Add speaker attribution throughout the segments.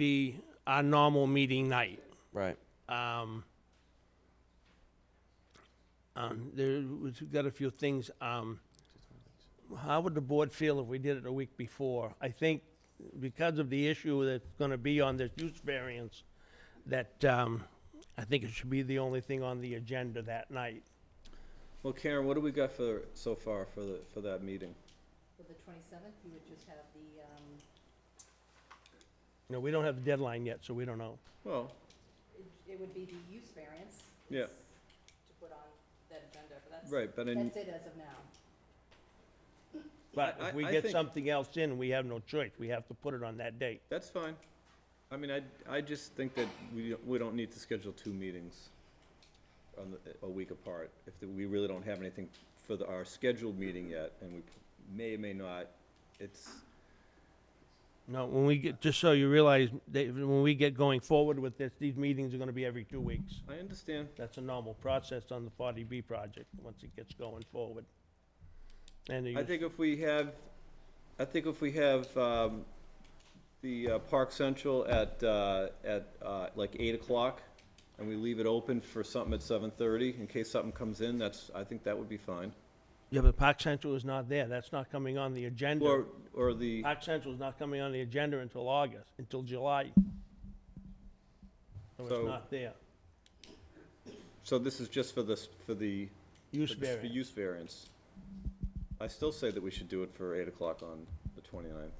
Speaker 1: be our normal meeting night.
Speaker 2: Right.
Speaker 1: Um, um, there was, we've got a few things. Um, how would the board feel if we did it a week before? I think because of the issue that's going to be on this use variance, that um, I think it should be the only thing on the agenda that night.
Speaker 2: Well, Karen, what do we got for, so far for the, for that meeting?
Speaker 3: For the twenty-seventh, you would just have the, um,
Speaker 1: You know, we don't have the deadline yet, so we don't know.
Speaker 2: Well,
Speaker 3: it- it would be the use variance.
Speaker 2: Yeah.
Speaker 3: To put on that agenda, but that's,
Speaker 2: right, but in,
Speaker 3: that's it as of now.
Speaker 1: But
Speaker 2: I-
Speaker 1: if we
Speaker 2: I
Speaker 1: get
Speaker 2: think-
Speaker 1: something else in, we have no choice. We have to put it on that date.
Speaker 2: that's fine. I mean, I, I just think that we, don't- we don't need to schedule two meetings on the, a week apart. If the- we really don't have anything for the, our scheduled meeting yet, and we may, may not, it's,
Speaker 1: No, when we get, just so you realize, that when we get going forward with this, these meetings are gonna be every two weeks.
Speaker 2: I understand.
Speaker 1: That's a normal process on the forty B project, once it gets going forward. And
Speaker 2: I
Speaker 1: you,
Speaker 2: think if we have, I think if we have, um, the uh, Park Central at, uh, at, uh, like eight o'clock, and we leave it open for something at seven thirty, in case something comes in, that's, I think that would be fine.
Speaker 1: yeah, but Park Central is not there, that's not coming on the agenda.
Speaker 2: Or, or the,
Speaker 1: Park Central is not coming on the agenda until August, until July. So
Speaker 2: So-
Speaker 1: it's not there.
Speaker 2: so this is just for this, for the,
Speaker 1: Use
Speaker 2: for this- for
Speaker 1: variance.
Speaker 2: use variance. I still say that we should do it for eight o'clock on the twenty-ninth.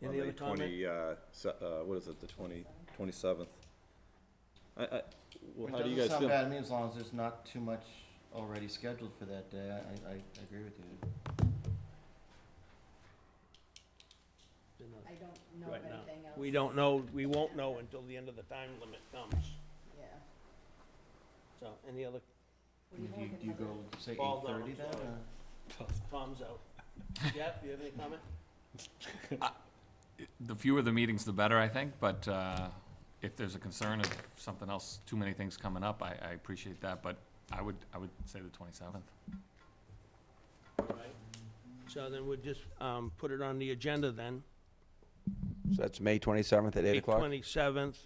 Speaker 1: Any other comment?
Speaker 2: Twenty, uh, se- uh, what is it, the twenty, twenty-seventh? I, I, well,
Speaker 4: It
Speaker 2: how do you
Speaker 4: doesn't
Speaker 2: guys
Speaker 4: sound
Speaker 2: feel?
Speaker 4: bad to me as long as there's not too much already scheduled for that day. I, I, I agree with you.
Speaker 3: I don't know
Speaker 1: Right
Speaker 3: of
Speaker 1: now.
Speaker 3: anything else.
Speaker 1: We don't know, we won't know until the end of the time limit comes,
Speaker 3: Yeah.
Speaker 1: so, any other
Speaker 3: What
Speaker 4: Do
Speaker 3: you
Speaker 4: you,
Speaker 3: think
Speaker 4: do you
Speaker 3: about
Speaker 4: go, say
Speaker 1: Ball
Speaker 4: eight
Speaker 1: down,
Speaker 4: thirty then?
Speaker 1: sorry.
Speaker 4: or-
Speaker 1: Palms out. Jeff, you have any comment?
Speaker 5: The fewer the meetings, the better, I think, but uh, if there's a concern of something else, too many things coming up, I, I appreciate that, but I would, I would say the twenty-seventh.
Speaker 1: All right. So then we'll just um, put it on the agenda then.
Speaker 6: So that's May 27th at 8 o'clock?
Speaker 1: 27th,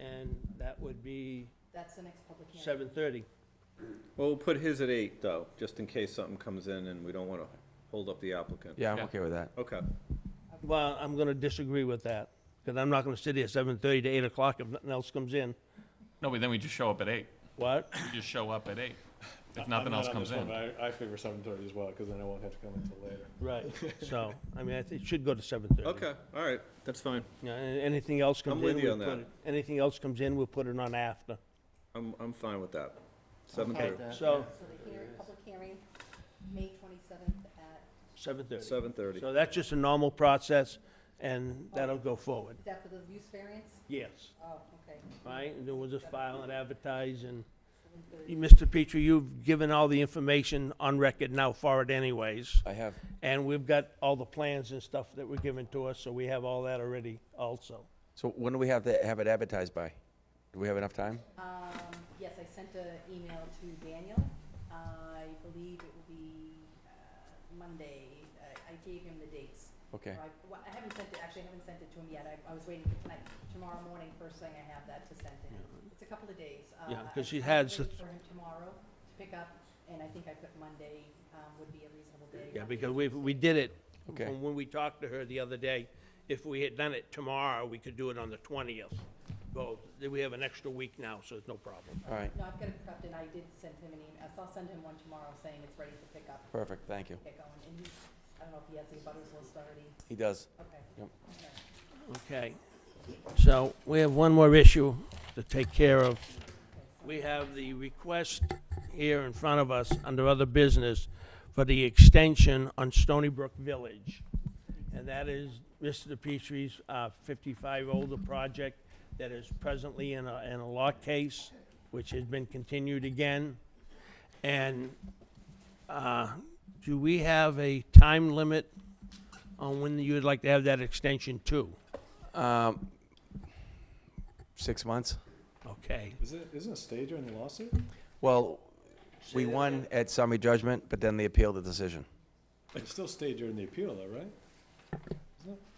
Speaker 1: and that would be
Speaker 3: That's the next public hearing.
Speaker 1: 7:30.
Speaker 2: Well, we'll put his at eight, though, just in case something comes in and we don't want to hold up the applicant.
Speaker 6: Yeah, I'm
Speaker 5: Yeah.
Speaker 6: okay with that.
Speaker 2: Okay,
Speaker 1: Well, I'm going to disagree with that, because I'm not going to sit here 7:30 to 8 o'clock if nothing else comes in.
Speaker 5: No, but then we just show up at eight.
Speaker 1: What?
Speaker 5: We just show up at eight, if
Speaker 7: I'm
Speaker 5: nothing
Speaker 7: not
Speaker 5: else
Speaker 7: on
Speaker 5: comes
Speaker 7: this one,
Speaker 5: in.
Speaker 7: but I, I favor seven thirty as well, because then I won't have to come until later.
Speaker 1: Right. So, I mean, I think it should go to 7:30.
Speaker 2: okay, all right, that's fine.
Speaker 1: Yeah, and Anything else comes in.
Speaker 2: with you
Speaker 1: we'll
Speaker 2: on
Speaker 1: put
Speaker 2: that.
Speaker 1: it- Anything else comes in, we'll put it on after.
Speaker 2: I'm, I'm fine with that.
Speaker 4: I'm
Speaker 2: Seven
Speaker 4: fine
Speaker 2: thirty.
Speaker 4: with that,
Speaker 1: So,
Speaker 3: So the hearing, public hearing, May twenty-seventh at,
Speaker 1: 7:30.
Speaker 2: Seven thirty.
Speaker 1: So that's just a normal process, and that'll go forward.
Speaker 3: is that for the use variance?
Speaker 1: Yes.
Speaker 3: Oh, okay.
Speaker 1: right? And then we'll just file and advertise, and,
Speaker 3: 7:30.
Speaker 1: Mr. Petrie, you've given all the information on record now for it anyways,
Speaker 6: I have,
Speaker 1: and we've got all the plans and stuff that were given to us, so we have all that already also.
Speaker 6: so when do we have to have it advertised by? Do we have enough time?
Speaker 3: Um, yes, I sent an email to Daniel. I believe it will be uh, Monday. I, I gave him the dates.
Speaker 6: Okay,
Speaker 3: Or I, well, I haven't sent it, actually, I haven't sent it to him yet. I, I was waiting for tonight. Tomorrow morning, first thing I have that to send to him. It's a couple of days. Uh,
Speaker 1: Yeah, 'cause he
Speaker 3: I- I'm
Speaker 1: has the
Speaker 3: waiting
Speaker 1: th-
Speaker 3: For him tomorrow to pick up, and I think I put Monday, um, would be a reasonable day.
Speaker 1: Yeah, because we, we did it,
Speaker 6: Okay.
Speaker 1: from when we talked to her the other day, if we had done it tomorrow, we could do it on the twentieth. Well, then we have an extra week now, so it's no problem.
Speaker 6: all right,
Speaker 3: No, I've got it prepped, and I did send him an email. So I'll send him one tomorrow saying it's ready to pick up,
Speaker 6: perfect, thank you.
Speaker 3: get going. And he, I don't know if he has the butters list already.
Speaker 6: He does.
Speaker 3: Okay.
Speaker 6: Yep.
Speaker 3: Okay.
Speaker 1: Okay, so we have one more issue to take care of. We have the request here in front of us under other business for the extension on Stony Brook Village. And that is Mr. Petrie's uh, 55 older project that is presently in a, in a law case, which has been continued again. And uh, do we have a time limit on when you would like to have that extension to?
Speaker 6: Um, Six months?
Speaker 1: Okay.
Speaker 7: Is it, isn't a stage in the lawsuit?
Speaker 6: Well, we won at summary judgment, but then they appealed the decision.
Speaker 7: It's still stage during the appeal though, right? Isn't it?